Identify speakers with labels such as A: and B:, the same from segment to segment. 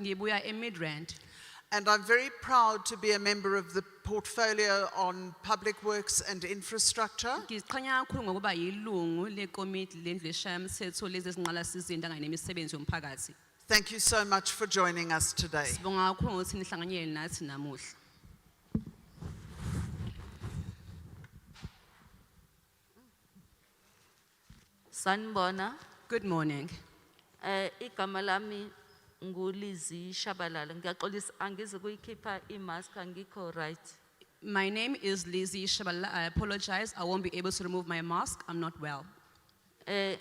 A: ngibuya eMidrand
B: And I'm very proud to be a member of the portfolio on public works and infrastructure.
A: ngiziqhenya kakhulu ngokuba yilungu lekomiti lendlu eshayamthetho lezi zinqalasizinda kanye nemisebenzi yomphakathi
B: Thank you so much for joining us today.
A: sibonga kakhulu ngokuthi nihlanganyele nathi namuhla
C: Sanibona
A: good morning
C: eh igama lami nguLizzy Shabalala ngiyaxolisa angizi kuyikhipha imask angikho right
A: my name is Lizzie Shabala I apologize I won't be able to remove my mask I'm not well
C: eh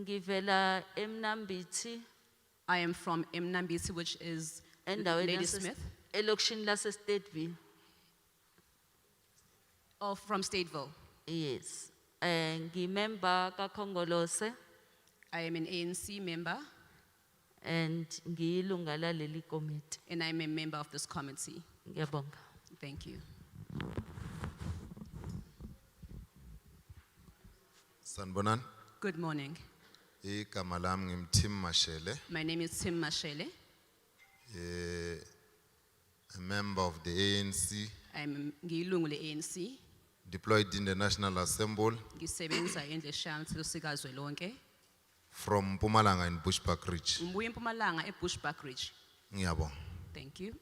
C: ngivela eMnambithi
A: I am from Mnambisi which is
C: endaweni
A: Lady
C: yase-
A: Smith
C: elokishini lase Stateville
A: or Oh, from Stateville
C: yes eh ngimember kaKhongolose
A: I am an ANC member
C: and ngiyilunga laleli committee
A: and I'm a member of this committee
C: ngiyabonga
A: thank you
D: Sanbonan,
A: good morning
D: igama lami ngimthim Mashele,
A: my name is Tim Mashele
D: a member of the ANC
A: I'm ngiyilungu le-ANC
D: deployed in the National Assembly
A: ngisebenza endleshayamthetho sikazwelonke
D: from Pumalanga in Bushbuck Ridge.
A: ngibuya empumalanga ebushbuck ridge
D: Ngiyabonga.
A: thank you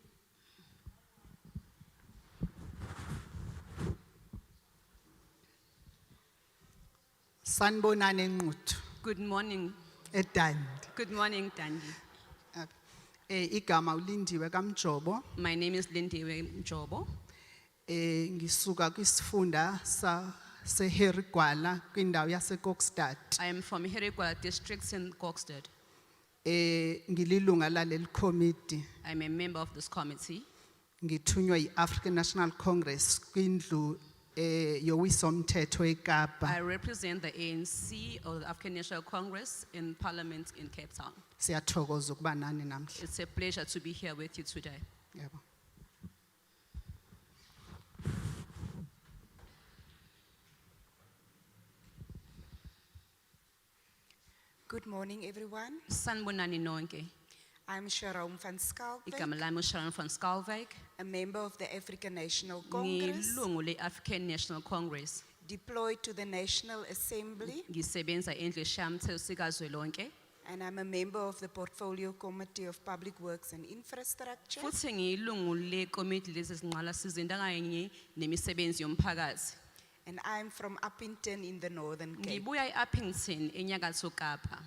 E: Sanibonani Nquthu
A: good morning
E: eDandi.
A: good morning dandi
E: Eh igama uLindiwe kaMjobo
A: my name is lindiwe mjobo
E: eh ngisuka kwisifunda sa seHerigwala kwindawo yase Kokstad.
A: i am from herigwa district in gokstead
E: Eh ngililunga laleli committee
A: i'm a member of this committee
E: ngithunywa yiAfrican National Congress kwindlu eh yowisomthetho eKapa.
A: i represent the anc or the african national congress in parliament in cape town
E: Siyathokoza ukuba nani namhla.
A: it's a pleasure to be here with you today
E: Yebo.
F: Good morning, everyone.
A: sanibonani nonke
F: I'm Sharon van Skalk,
A: igama lami usharon von skalvik
F: a member of the African National Congress,
A: ngilungu le-african national congress
F: deployed to the National Assembly,
A: ngisebenza endleshayamthetho sikazwelonke
F: and I'm a member of the Portfolio Committee of Public Works and Infrastructure.
A: futhi ngiyilungu lekomiti lezi zinqalasizinda kanye nemisebenzi yomphakathi
F: And I'm from Uppington in the Northern Cape.
A: ngibuya e-uppington enyakatho kapa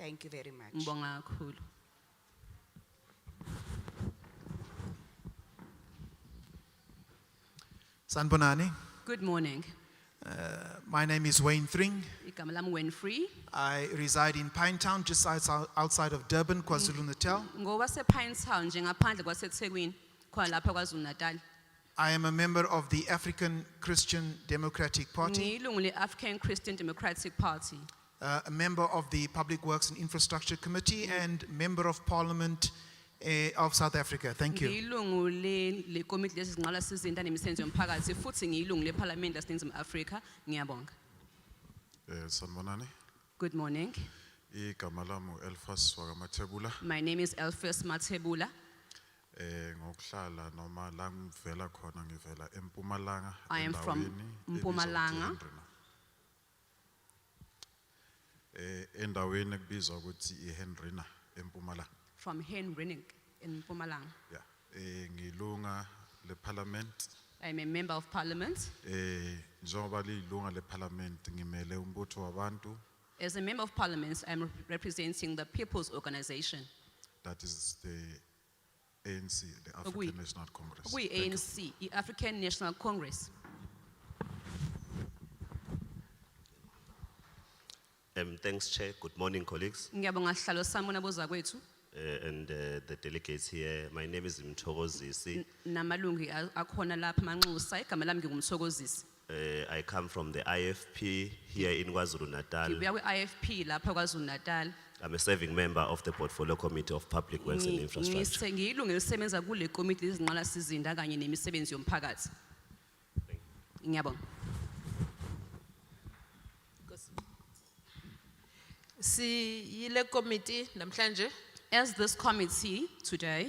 F: Thank you very much.
A: ngibonga kakhulu
G: Sanbonani,
A: good morning
G: my name is Wayne Thring.
A: igama lami wenfree
G: I reside in Pinetown, just outs- outside of Durban, KwaZulu Natal.
A: ngowasepinetown njengaphandle kwasethekwini khona lapha kwazulu natal
G: I am a member of the African Christian Democratic Party,
A: ngiyilungu le-african christian democratic party
G: uh, a member of the Public Works and Infrastructure Committee, and member of Parliament eh, of South Africa. Thank you.
A: ngiyilungu le- lekomiti lezi zinqalasizinda nemisebenzi yomphakathi futhi ngiyilungu lephalamende laseningizimu afrika ngiyabonga
H: Eh sanibonani.
A: good morning
H: Igama lami uElfas wakamathebula.
A: my name is elfis mathebula
H: Eh ngokuhlala noma la ngivela khona ngivela eMpumalanga
A: I am from
H: endaweni ebizwa
A: Mpumalanga.
H: ukuthi iHendrina. Eh endaweni ekubizwa ukuthi iHendrina eMpumalanga.
A: from Henrenning in Pumalang.
H: Yeah. Eh ngilunga leParliament.
A: I'm a member of parliament.
H: Eh njengoba lilunga leParliament ngimele umbutho wabantu
A: As a member of parliament, I'm representing the People's Organization,
H: that is the ANC the
A: Okuyi-
H: African National Congress.
A: we
H: Thank you.
A: ANC, the African National Congress.
I: Um, thanks, Chair. Good morning, colleagues
A: Ngiyabonga sihlalo sami bona bozakwethu
I: uh, and uh, the delegates here. My name is Mtogozisi.
A: namalungu a- akhona lapha manxusa igama lami ngingumthokozisi.
I: Uh, I come from the IFP here in KwaZulu Natal.
A: Ngibuya kwi-IFP lapha kwaZulu Natal.
I: I'm a serving member of the Portfolio Committee of Public Works and Infrastructure.
A: Ngise- Ngiyilungu elisebenza kule komiti lezinqalasizinda kanye nemisebenzi yomphakathi. Ngiyabonga.
J: siyile committee namhlanje
A: As this committee today,